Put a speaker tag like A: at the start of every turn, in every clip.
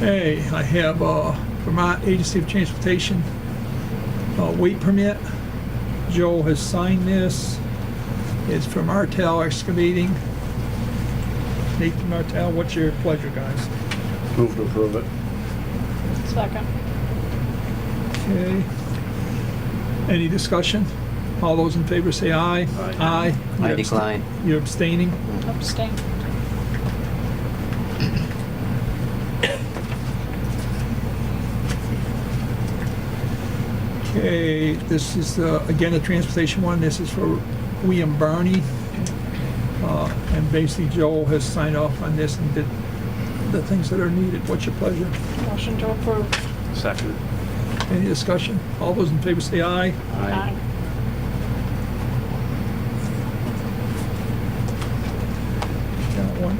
A: Hey, I have uh, Vermont Agency of Transportation uh, weight permit. Joel has signed this. It's from Martel Excavating. Nathan Martel, what's your pleasure, guys?
B: Move to approve it.
C: Second.
A: Okay. Any discussion? All those in favor say aye.
B: Aye.
A: Aye.
D: I decline.
A: You're abstaining?
C: Abstain.
A: Okay, this is, uh, again, a transportation one. This is for William Barney. Uh, And basically Joel has signed off on this and did the things that are needed. What's your pleasure?
C: Motion to approve.
B: Second.
A: Any discussion? All those in favor say aye.
D: Aye.
A: Got one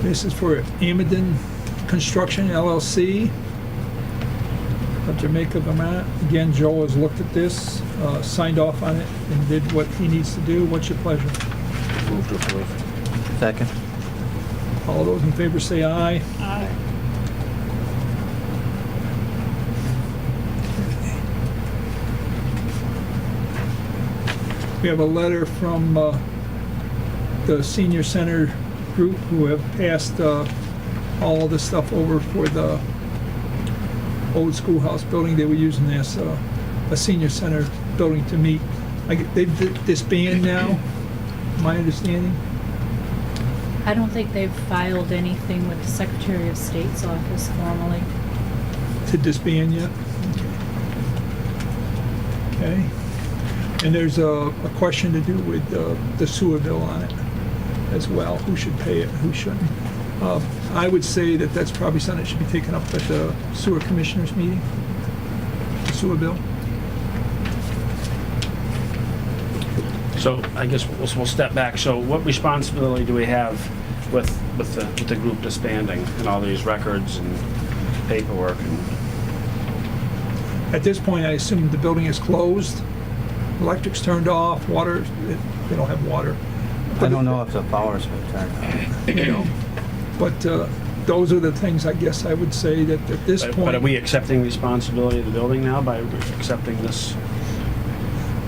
A: more. This is for Amadon Construction LLC of Jamaica, Vermont. Again, Joel has looked at this, uh, signed off on it, and did what he needs to do. What's your pleasure?
B: Move to approve.
D: Second.
A: All those in favor say aye.
C: Aye.
A: We have a letter from uh, the senior center group who have passed uh, all the stuff over for the old schoolhouse building. They were using as uh, a senior center building to meet. I get- They've disbanded now, my understanding.
E: I don't think they've filed anything with the Secretary of State's office formally.
A: to disband yet? Okay. And there's a, a question to do with uh, the sewer bill on it as well, who should pay it, who shouldn't. Uh, I would say that that's probably something that should be taken up at the sewer commissioners meeting, the sewer bill.
F: So I guess we'll, we'll step back. So what responsibility do we have with, with the, with the group disbanding and all these records and paperwork and,
A: At this point, I assume the building is closed, electric's turned off, water, it- they don't have water.
D: I don't know if the power's been turned on.
A: You know, but uh, those are the things, I guess, I would say that at this
F: but
A: point.
F: but are we accepting responsibility of the building now by accepting this?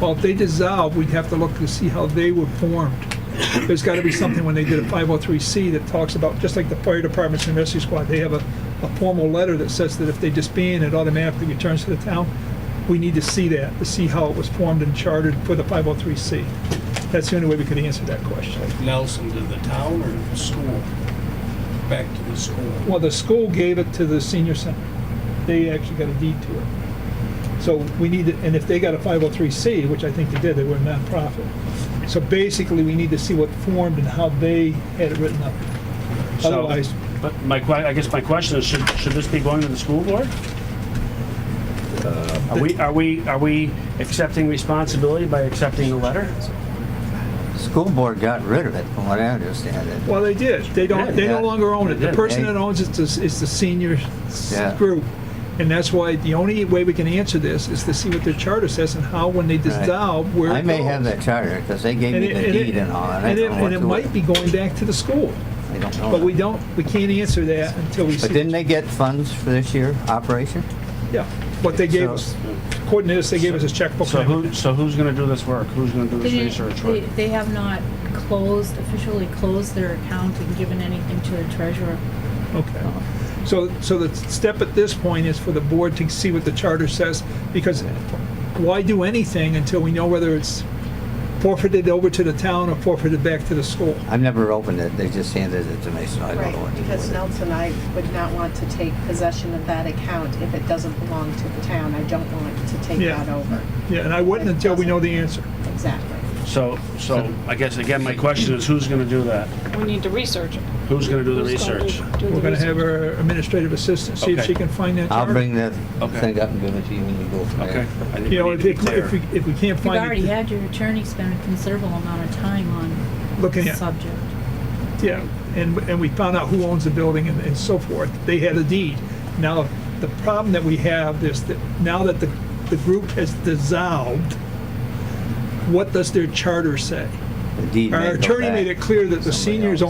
A: Well, if they dissolve, we'd have to look to see how they were formed. There's got to be something when they did a 503C that talks about, just like the fire departments and rescue squad, they have a, a formal letter that says that if they disband, it automatically returns to the town. We need to see that, to see how it was formed and chartered for the 503C. That's the only way we could answer that question.
G: Nelson to the town or to the school? Back to the school.
A: Well, the school gave it to the senior center. They actually got a deed to it. So we need, to- and if they got a 503C, which I think they did, they were a nonprofit. So basically, we need to see what formed and how they had it written up.
F: So-
A: Otherwise,
F: But my, que- I guess my question is, should, should this be going to the school board? Uh, Are we, are we, are we accepting responsibility by accepting the letter?
D: School board got rid of it, from what I understand it.
A: well, they did. They don't, they no
D: Yeah.
A: longer own it. The
F: Yeah.
A: person that owns it is, is the senior s-
D: Yeah.
A: group. And that's why the only way we can answer this is to see what their charter says and how, when they dissolve, where
D: I
A: it
D: may have
A: goes.
D: that charter, because they gave
A: And
D: me
A: it-
D: the
A: and it-
D: deed and all, and I
A: And it,
D: don't know
A: and
D: what to
A: it
D: do
A: might
D: with
A: be
D: it.
A: going back to the school.
D: I don't know.
A: But we don't, we can't answer that until we see.
D: But didn't they get funds for this year, operation?
A: Yeah, what they gave
D: So-
A: us, according to this, they gave us a checkbook.
F: So
A: and
F: who,
A: everything.
F: so who's gonna do this work? Who's gonna do
E: They
F: this
E: didn't-
F: research
E: They,
F: work?
E: they have not closed, officially closed their account and given anything to the treasurer.
A: Okay. So, so the step at this point is for the board to see what the charter says, because why do anything until we know whether it's forfeited over to the town or forfeited back to the school?
D: I've never opened it, they just handed it to me, so I don't know
H: Right,
D: what to do
H: because
D: with it.
H: Nelson, I would not want to take possession of that account if it doesn't belong to the town. I don't want to take
A: Yeah.
H: that over.
A: Yeah, and I wouldn't until we know the answer.
H: Exactly.
F: So, so I guess again, my question is, who's gonna do that?
C: We need to research it.
F: Who's gonna do the
C: Who's gonna
F: research?
C: do- do the
A: We're gonna
C: research?
A: have our administrative assistant, see if
F: Okay.
A: she can find that
D: I'll
A: charter.
D: bring the
F: Okay.
D: thing up and give it to you when you go from there.
F: Okay. I think
A: You know,
F: we
A: if,
F: need to
A: it-
F: be
A: if we,
F: clear.
A: if we can't
E: You've
A: find
E: already
A: it,
E: had your attorney spend a considerable amount of time on
A: looking
E: the
A: at,
E: subject.
A: Yeah, and, and we found out who owns the building and, and so forth. They had a deed. Now, the problem that we have is that now that the, the group has dissolved, what does their charter say?
D: The deed may
A: Our
D: go
A: attorney
D: back
A: made it clear that the
D: to somebody
A: seniors
D: else.